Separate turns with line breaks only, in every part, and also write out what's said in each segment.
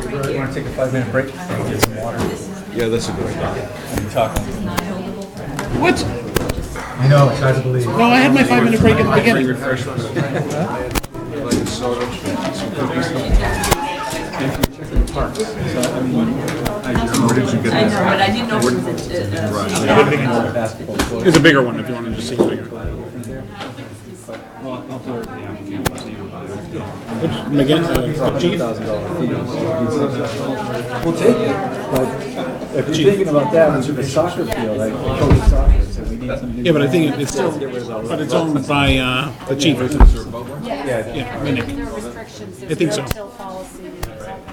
you want to take a five-minute break? Get some water
Yeah, that's a good idea.
and talk.
What?
I know, it's hard to believe.
No, I had my five minute break at the
Free
beginning.
refreshments.
Like a soda, some cookies. Where did you get
I
that?
know, but I didn't know if it was a, a- a-
Basketball court.
It's a bigger one if you want to just see bigger. uh,
Thousand dollar fee. We'll take it, but if you're thinking about that, it's a soccer field, like coach soccer, so we need some new.
Yeah, but I think it- it's still, but it's owned by uh, the chief. isn't it? Yeah, I mean, it-
There are restrictions,
I
there's
think
no
so.
till policy, there's all kinds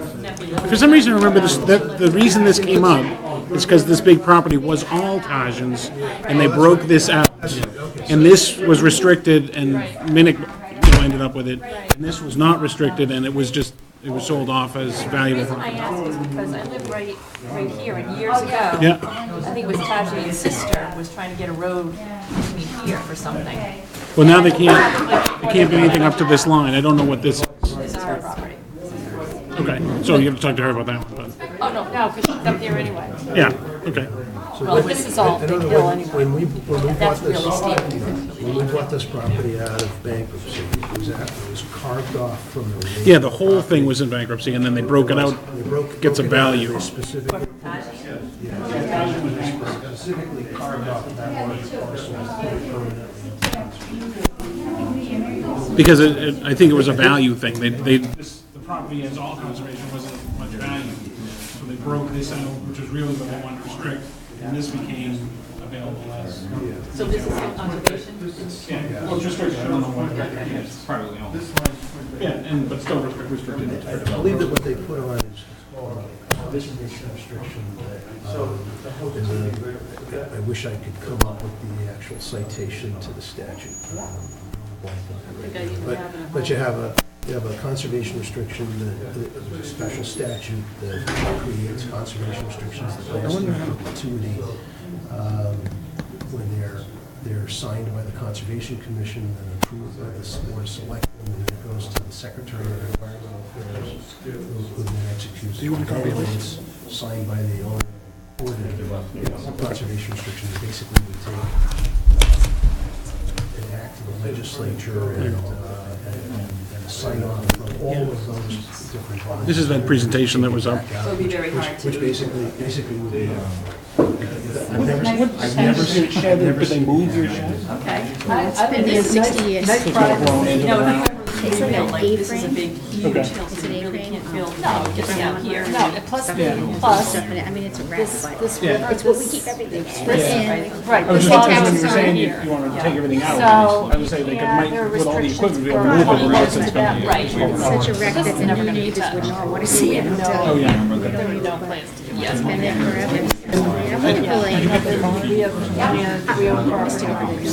of stuff.
For some reason, I remember this, that, the reason this came up is because this big property was all Tajans, and they broke this out. And this was restricted, and Minnick, you know, ended up with it. And this was not restricted, and it was just, it was sold off as valuable
And I
property.
ask is because I live right, right here, and years ago,
Yeah.
I think it was Tajay's sister was trying to get a road between here for something.
Well, now they can't, they can't do anything up to this line. I don't know what this is.
This is her property.
Okay, so you have to talk to her about that one, but,
Oh, no, no, because she's up there anyway.
yeah, okay.
Well, this is all Big Hill anyway.
When we, when we bought
That's
this,
really steep.
when we bought this property out of bankruptcy, it was, at- it was carved off from the. main-
Yeah, the whole thing was in bankruptcy, and then they broke it out,
They broke-
gets a
broke it out
value.
very Specifically. Yeah, Specifically carved off that large parcel.
Because it, it, I think it was a value thing, they, they. The property as all conservation wasn't much value, so they broke this out, which is really what they wanted to restrict, and this became available as.
so this is still conservation?
Yeah, well, it's restricted, I don't know what, it's privately owned. Yeah, and, but still restricted.
I believe that what they put on is, uh, this is a restriction. that, um, is a- I wish I could come up with the actual citation to the statute. um, But, but you have a, you have a conservation restriction, that- that- there's a special statute that creates conservation restrictions that last in perpetuity um, when they're, they're signed by the Conservation Commission and approved by the Board of Selectmen, and then it goes to the Secretary of Environmental Affairs, who who then executes. Do you want to copy this? Signed by the owner, or the conservation restrictions, basically we take uh, an act of the legislature and, uh, and- and and sign off from all of those different bodies.
This is that presentation that was up.
So it'd be very hard
Which
to,
basically, basically would be, um,
I've never seen shed, but they moved your shed?
okay.
I've been here 60 years.
Nice product, no, no, it's
like an
like this is a
A-frame.
big, huge hill, so you really can't build, just down here.
No, and plus,
Plus,
plus,
I mean, it's a
this,
rack,
this,
it's what we keep everything in.
right.
I was
this
just
lot
thinking when
is
you were
down
saying you,
here.
you wanted to take everything out,
So,
I was saying they could
yeah, there are
might, with all the
restrictions
equipment, be able
for-
to move it,
Well,
unless it's
that-
gonna be.
Right.
It's such a wreck that the
never
new
gonna be
neighbors would
touched.
not want to see it.
Oh,
until
yeah.
There are no plans to do that.
It's been there forever. Yeah, wonderful, like,
We have, and we own property on it.
has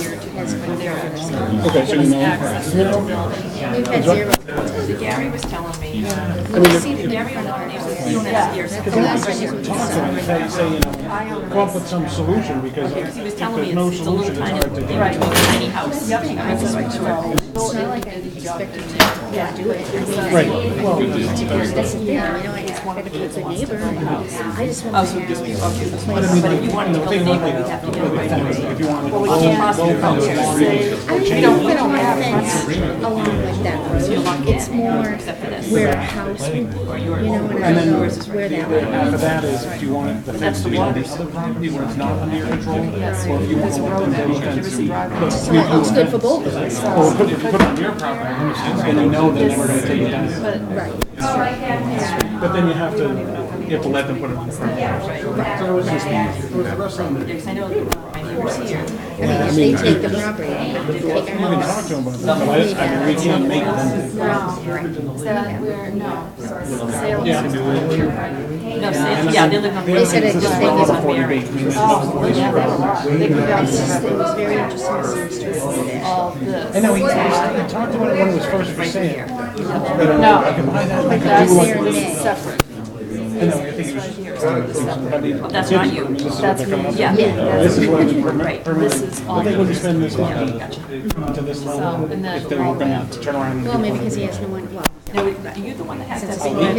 been there ever since.
Okay, so you know.
access to the building.
We've had zero.
The Gary was telling me,
mean,
see the Gary on our neighbors, you don't have to hear
The
something.
last one was
talk to them and say, say, you know, come up with some solution, because if
He
there's
was telling me
no
it's it's a little
solution, it's
tiny,
hard to
thing
get.
between a tiny house.
It's not like I expected to do it. I mean, I- That's, yeah, you know, I expected to be a neighbor. I just want to have.
But if you wanted to build a neighborhood, we'd have to get a right away.
We don't, we don't have fence along like that road. It's more where a house, would be, you know, and I don't know where that would be.
But that is, do you want the fence to be on the other property where it's not under your control? Or if you want to let them build a fence,
So it looks good for both of us.
or put, if you put it on your property, I understand, and you know that we're gonna take it down.
Right.
But then you have to, you have to let them put it on the property.
Because I know my neighbors here,
I mean, if they take the property, they take our house.
I mean, we can't make them.
no, so- yeah, they live on.
They said it just, they
One
was
is on
on
Mary.
Mary. It's just, it was very interesting to see the streets over there.
all this.
I know, we we talked about it when it was first for sale.
Like last year in May.
Separate. But that's not you. That's me. Yeah.
This is what we
Right, this is all.
They wouldn't spend this
Yeah,
money
gotcha.
to this
So,
level
and then
if they were
all
gonna
that.
have to turn around and.
Well, maybe because he has no one, well.
No, you're the one that has
Since
that.
it's a